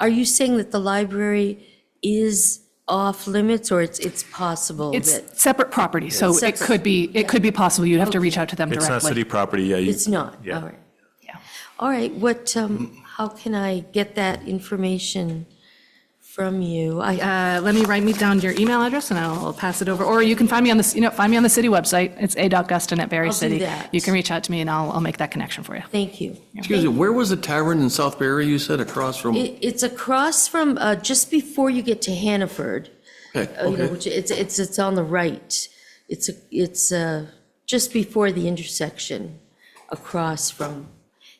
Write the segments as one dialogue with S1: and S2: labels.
S1: Are you saying that the library is off limits or it's, it's possible
S2: It's
S1: that?
S2: separate property, so it
S1: Separate.
S2: could be, it could be possible. You'd have to reach out to them
S3: It's not
S2: directly.
S3: city property, yeah. you-
S1: It's not?
S3: yeah.
S1: All right.
S2: Yeah.
S1: All right, what, um, how can I get that information from you? I,
S2: Uh, Let me write me down your email address and I'll pass it over. Or you can find me on the, you know, find me on the city website. It's a.guston at Berry
S1: I'll do
S2: City.
S1: that.
S2: You can reach out to me and I'll, I'll make that connection for you.
S1: thank you.
S4: Excuse me, where was the tavern in South Barry, you said, across from?
S1: It, it's across from, uh, just before you get to Hannaford,
S4: Okay,
S1: uh, you know,
S4: okay.
S1: which it's, it's, it's on the right. It's, a- it's, uh, just before the intersection across from,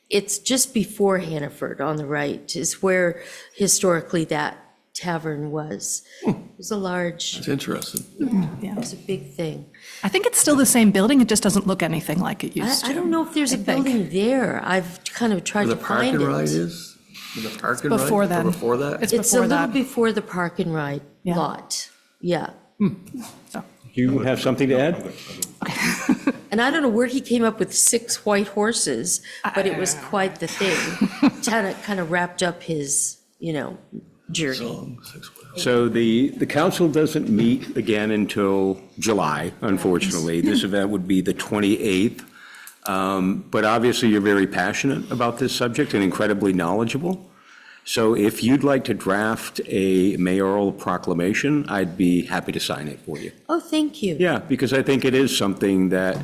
S1: it's just before Hannaford on the right is where historically that tavern was.
S4: Hmm.
S1: It was a large,
S4: It's interesting.
S1: it was a big thing.
S2: I think it's still the same building. It just doesn't look anything like it
S1: I,
S2: used to.
S1: I don't know if there's a
S2: I think.
S1: building there. I've kind of tried
S4: Where
S1: to
S4: the park
S1: find
S4: and ride
S1: it.
S4: is? Where The park and ride?
S2: Before
S4: or
S2: then.
S4: Before that?
S1: It's
S2: It's
S1: a
S2: before
S1: little
S2: that.
S1: before the park and ride
S2: Yeah.
S1: lot. Yeah.
S2: so.
S5: Do you have something to add?
S1: And I don't know where he came up with six white horses, but it was quite the thing. Kind of, kind of wrapped up his, you know, journey.
S4: Long, Oh, six, whatever.
S5: So the, the council doesn't meet again until July, unfortunately. This event would be the 28th. Um, But obviously, you're very passionate about this subject and incredibly knowledgeable. So if you'd like to draft a mayoral proclamation, I'd be happy to sign it for you.
S1: Oh, thank you.
S5: Yeah, because I think it is something that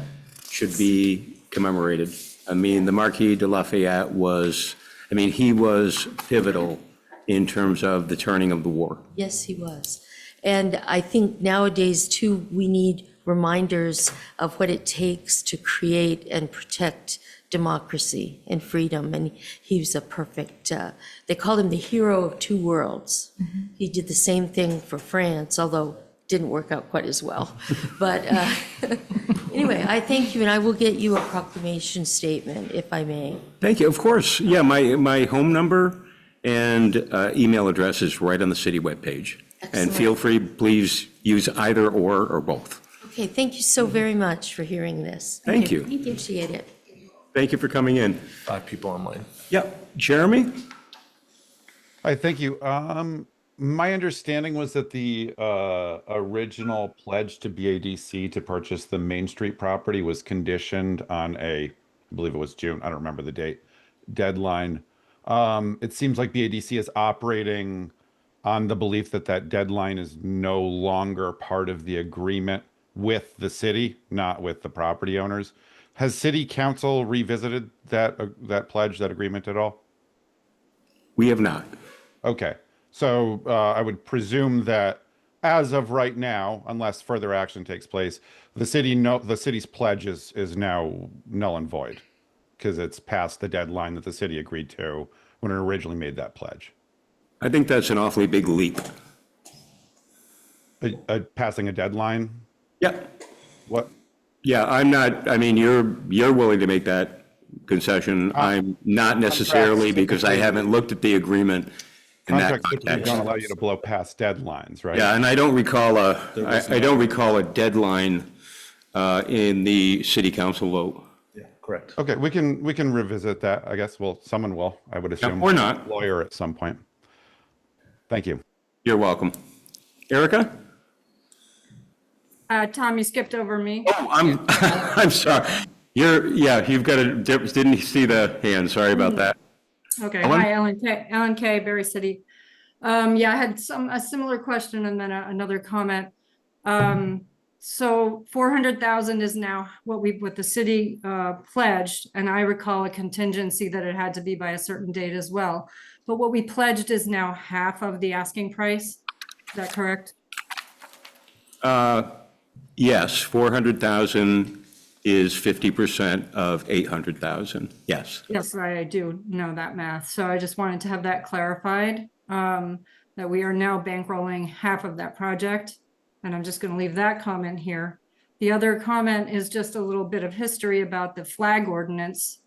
S5: should be commemorated. I mean, the Marquis de Lafayette was, I mean, he was pivotal in terms of the turning of the war.
S1: Yes, he was. And I think nowadays too, we need reminders of what it takes to create and protect democracy and freedom. And he was a perfect, uh, they called him the hero of two worlds. He did the same thing for France, although didn't work out quite as well. But uh, anyway, I thank you and I will get you a proclamation statement if I may.
S5: Thank you, of course. Yeah, my, my home number and uh, email address is right on the city webpage. And
S1: Excellent.
S5: feel free, please use either or or both.
S1: Okay, thank you so very much for hearing this.
S5: Thank you.
S1: Appreciate it.
S5: Thank you for coming in.
S3: Five people online.
S5: Yep, Jeremy?
S6: Hi, thank you. Um, my understanding was that the uh, original pledge to BADC to purchase the Main Street property was conditioned on a, I believe it was June, I don't remember the date, deadline. Um, it seems like BADC is operating on the belief that that deadline is no longer part of the agreement with the city, not with the property owners. Has city council revisited that uh, that pledge, that agreement at all?
S5: We have not.
S6: Okay. So uh, I would presume that as of right now, unless further action takes place, the city no the city's pledge is is now null and void because it's past the deadline that the city agreed to when it originally made that pledge.
S5: I think that's an awfully big leap.
S6: Uh, uh, passing a deadline.
S5: Yep.
S6: What?
S5: Yeah, I'm not, I mean, you're, you're willing to make that
S6: Uh,
S5: concession. I'm not necessarily because I haven't looked at the agreement in that
S6: Contracts typically
S5: context.
S6: don't allow you to blow past deadlines, right?
S5: Yeah, and I don't recall a, I I don't recall a deadline uh, in the city council vote.
S3: Correct.
S6: Okay, we can we can revisit that. I guess. Well, someone will. I would assume.
S5: or not.
S6: Lawyer at some point. Thank you.
S5: You're welcome. Erica?
S7: Uh, Tom, you skipped over me.
S5: Oh, I'm, I'm sorry. You're, yeah, you've got a, didn't see the hand, sorry about that.
S7: Okay,
S5: Ellen?
S7: hi, Ellen K, Ellen K, Berry City. Um, yeah, I had some, a similar question and then a- another comment. Um, so four hundred thousand is now what we, what the city, uh, pledged, and I recall a contingency that it had to be by a certain date as well. But what we pledged is now half of the asking price. Is that correct?
S5: Yes, 400,000 is 50% of 800,000, yes.
S7: Yes, right, I do know that math, so I just wanted to have that clarified, um, that we are now bankrolling half of that project. And I'm just gonna leave that comment here. The other comment is just a little bit of history about the flag ordinance,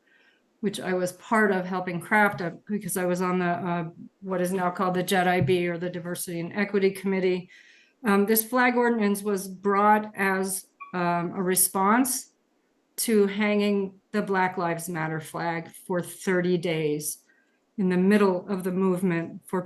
S7: which I was part of helping craft up, because I was on the, uh, what is now called the JEDIB or the Diversity and Equity Committee. Um, this flag ordinance was brought as, um, a response to hanging the Black Lives Matter flag for 30 days in the middle of the movement for